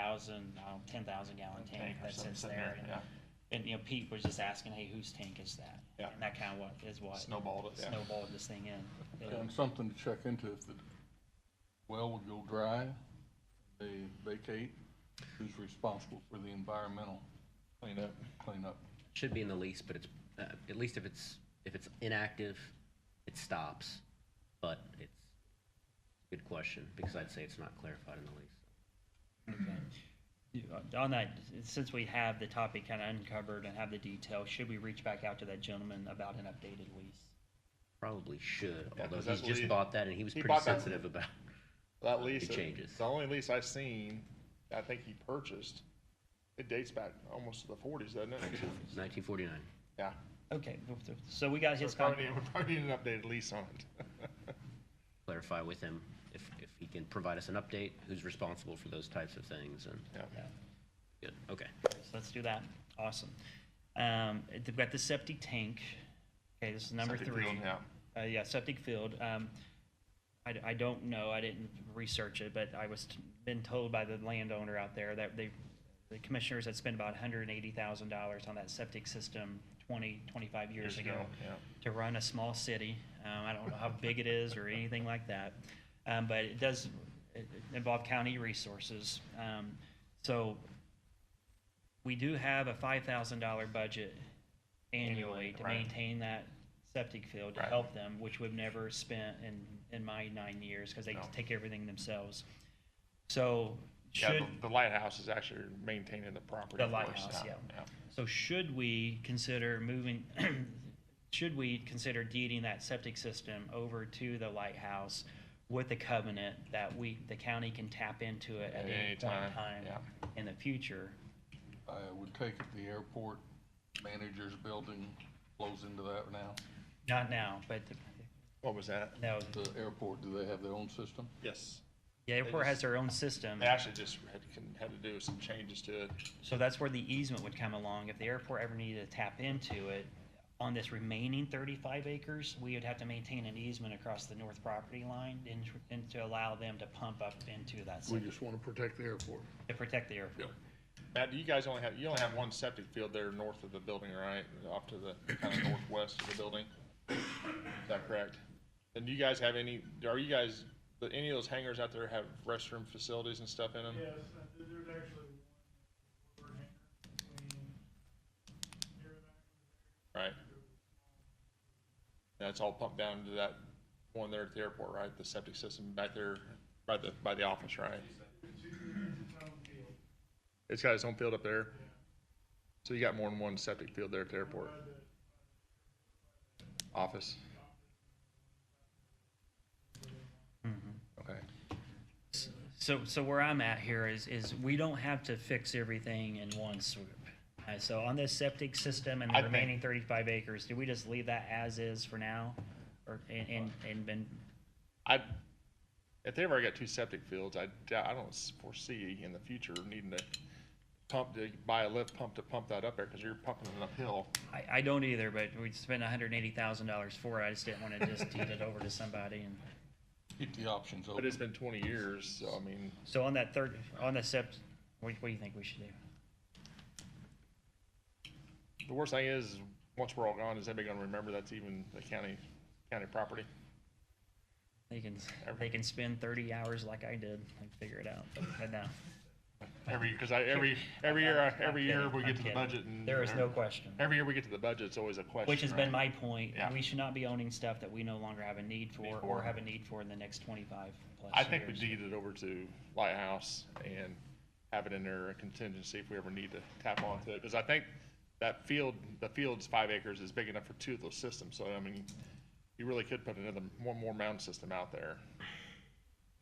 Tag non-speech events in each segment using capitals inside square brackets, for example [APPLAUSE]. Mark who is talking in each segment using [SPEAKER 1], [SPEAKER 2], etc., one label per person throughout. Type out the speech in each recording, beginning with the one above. [SPEAKER 1] thousand, I don't, ten thousand gallon tank
[SPEAKER 2] Tank or
[SPEAKER 1] that
[SPEAKER 2] something
[SPEAKER 1] sits
[SPEAKER 2] sitting
[SPEAKER 1] there.
[SPEAKER 2] there,
[SPEAKER 1] and-
[SPEAKER 2] yeah.
[SPEAKER 1] And, you know, Pete was just asking, hey, whose tank is that?
[SPEAKER 2] Yeah.
[SPEAKER 1] And that kinda what, is what.
[SPEAKER 2] Snowballed it, yeah.
[SPEAKER 1] Snowballed this thing in.
[SPEAKER 3] And something to check into, if the well would go dry, they vacate, who's responsible for the environmental
[SPEAKER 2] clean up.
[SPEAKER 3] cleanup?
[SPEAKER 4] Should be in the lease, but it's, uh, at least if it's, if it's inactive, it stops. But it's, good question, because I'd say it's not clarified in the lease.
[SPEAKER 1] Yeah, On that, since we have the topic kinda uncovered and have the detail, should we reach back out to that gentleman about an updated lease?
[SPEAKER 4] Probably should,
[SPEAKER 2] Yeah,
[SPEAKER 4] although
[SPEAKER 2] 'cause
[SPEAKER 4] he's
[SPEAKER 2] that
[SPEAKER 4] just
[SPEAKER 2] lease-
[SPEAKER 4] bought that and he was
[SPEAKER 2] he
[SPEAKER 4] pretty
[SPEAKER 2] bought that-
[SPEAKER 4] sensitive about.
[SPEAKER 2] That lease,
[SPEAKER 4] It changes.
[SPEAKER 2] the only lease I've seen, I think he purchased, it dates back almost to the forties, doesn't it?
[SPEAKER 4] Nineteen forty-nine.
[SPEAKER 2] Yeah.
[SPEAKER 1] Okay, so we got
[SPEAKER 2] So
[SPEAKER 1] his
[SPEAKER 2] probably
[SPEAKER 1] contact.
[SPEAKER 2] need, we probably need an updated lease on it.
[SPEAKER 4] Clarify with him if, if he can provide us an update, who's responsible for those types of things and,
[SPEAKER 2] Yeah.
[SPEAKER 1] Yeah.
[SPEAKER 4] good, okay.
[SPEAKER 1] So Let's do that. Awesome. Um, they've got the septic tank. Okay, this is number
[SPEAKER 2] Septic
[SPEAKER 1] three.
[SPEAKER 2] field, yeah.
[SPEAKER 1] Uh, yeah, septic field. Um, I, d- I don't know. I didn't research it, but I was t- been told by the landowner out there that they, the commissioners had spent about hundred and eighty thousand dollars on that septic system 20, 25 years,
[SPEAKER 2] Years
[SPEAKER 1] ago,
[SPEAKER 2] ago, yeah.
[SPEAKER 1] to run a small city. Um, I don't know how big it is or anything like that, um, but it does it, it involve county resources. Um, so we do have a five thousand dollar budget annually to
[SPEAKER 2] right.
[SPEAKER 1] maintain that septic field to
[SPEAKER 2] Right.
[SPEAKER 1] help them, which we've never spent in, in my nine years, because they
[SPEAKER 2] No.
[SPEAKER 1] take everything themselves. So
[SPEAKER 2] Yeah,
[SPEAKER 1] should,
[SPEAKER 2] the- the lighthouse is actually maintaining the property.
[SPEAKER 1] The
[SPEAKER 2] for us,
[SPEAKER 1] lighthouse, yeah.
[SPEAKER 2] yeah.
[SPEAKER 1] so should we consider moving, [CLEARS THROAT] should we consider deeding that septic system over to the lighthouse with the covenant that we, the county can tap into it at any point in time
[SPEAKER 2] yeah.
[SPEAKER 1] in the future?
[SPEAKER 3] I would take it the airport manager's building flows into that now.
[SPEAKER 1] Not now, but,
[SPEAKER 2] What was that?
[SPEAKER 1] no,
[SPEAKER 3] The airport, do they have their own system?
[SPEAKER 2] Yes.
[SPEAKER 1] the airport
[SPEAKER 2] just-
[SPEAKER 1] has their own system.
[SPEAKER 2] They actually just had, had to do some changes to it.
[SPEAKER 1] So that's where the easement would come along. If the airport ever needed to tap into it, on this remaining thirty-five acres, we would have to maintain an easement across the north property line and, tr- and to allow them to pump up into that,
[SPEAKER 3] We
[SPEAKER 1] site
[SPEAKER 3] just want to protect the airport.
[SPEAKER 1] to protect the airport.
[SPEAKER 2] Matt, do you guys only have, you only have one septic field there north of the building, right? Off to the, kind of northwest of the building? Is that correct? And do you guys have any, are you guys, do any of those hangars out there have restroom facilities and stuff in them?
[SPEAKER 5] Yes, uh, there- there's actually one overhanger between here and there.
[SPEAKER 2] Right? That's all pumped down to that one there at the airport, right? The septic system back there by the, by the office, right?
[SPEAKER 5] It's its own field.
[SPEAKER 2] It's got its own field up there? So you got more than one septic field there at the airport?
[SPEAKER 5] By the-
[SPEAKER 2] Office? Okay.
[SPEAKER 1] So, so where I'm at here is, is we don't have to fix everything in one swoop. Uh, so on this septic system and
[SPEAKER 2] I
[SPEAKER 1] the
[SPEAKER 2] think-
[SPEAKER 1] remaining thirty-five acres, do we just leave that as is for now? Or, and, and, and then
[SPEAKER 2] I, if they ever got two septic fields, I doubt, I don't s- foresee in the future needing to pump, to buy a lift pump to pump that up there, cause you're pumping it uphill.
[SPEAKER 1] I, I don't either, but we spent hundred and eighty thousand dollars for it. I just didn't wanna just deed it over to somebody and.
[SPEAKER 3] Keep the options
[SPEAKER 2] But
[SPEAKER 3] open.
[SPEAKER 2] it's been twenty years, so I mean,
[SPEAKER 1] So on that third, on the sept, what, what do you think we should do?
[SPEAKER 2] the worst thing is, once we're all gone, is anybody gonna remember that's even the county, county property?
[SPEAKER 1] They can, they can spend thirty hours like I did and figure it out, but no.
[SPEAKER 2] Every, cause I, every, every year, I- every
[SPEAKER 1] I'm
[SPEAKER 2] year
[SPEAKER 1] kidding,
[SPEAKER 2] we
[SPEAKER 1] I'm
[SPEAKER 2] get to the
[SPEAKER 1] kidding.
[SPEAKER 2] budget and.
[SPEAKER 1] There is no question,
[SPEAKER 2] Every year we get to the budget, it's always a question.
[SPEAKER 1] which has been
[SPEAKER 2] right?
[SPEAKER 1] my point.
[SPEAKER 2] Yeah.
[SPEAKER 1] We should not be owning stuff that we no longer have a need for or
[SPEAKER 2] Before.
[SPEAKER 1] have a need for in the next twenty-five plus
[SPEAKER 2] I think we
[SPEAKER 1] years.
[SPEAKER 2] deed it over to Lighthouse and have it in there a contingency if we ever need to tap onto it, because I think that field, the field's five acres is big enough for two of those systems, so I mean, you really could put another, one more mound system out there.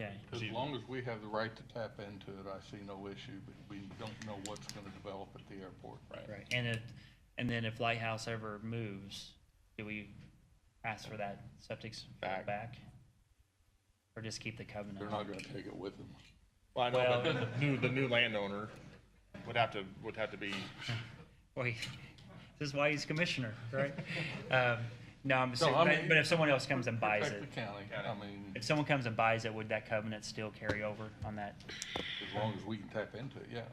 [SPEAKER 1] Okay.
[SPEAKER 3] As long as we have the right to tap into it, I see no issue, but we don't know what's going to develop at the airport.
[SPEAKER 1] Right, and if, and then if Lighthouse ever moves, do we ask for that septic s-
[SPEAKER 2] Back.
[SPEAKER 1] back? Or just keep the covenant?
[SPEAKER 3] They're not going to take it with them.
[SPEAKER 2] Well, I know,
[SPEAKER 1] Well-
[SPEAKER 2] but the new, the new landowner would have to, would have to be,
[SPEAKER 1] [LAUGHS]
[SPEAKER 2] [LAUGHS]
[SPEAKER 1] Well, he- this is why he's commissioner, right? Um, No, I'm saying,
[SPEAKER 3] I
[SPEAKER 1] but-
[SPEAKER 3] mean-
[SPEAKER 1] but if someone else comes and buys
[SPEAKER 3] Protect
[SPEAKER 1] it,
[SPEAKER 3] the county, I mean,
[SPEAKER 1] if someone comes and buys it, would that covenant still carry over on that?
[SPEAKER 3] as long as we can tap into it, yeah.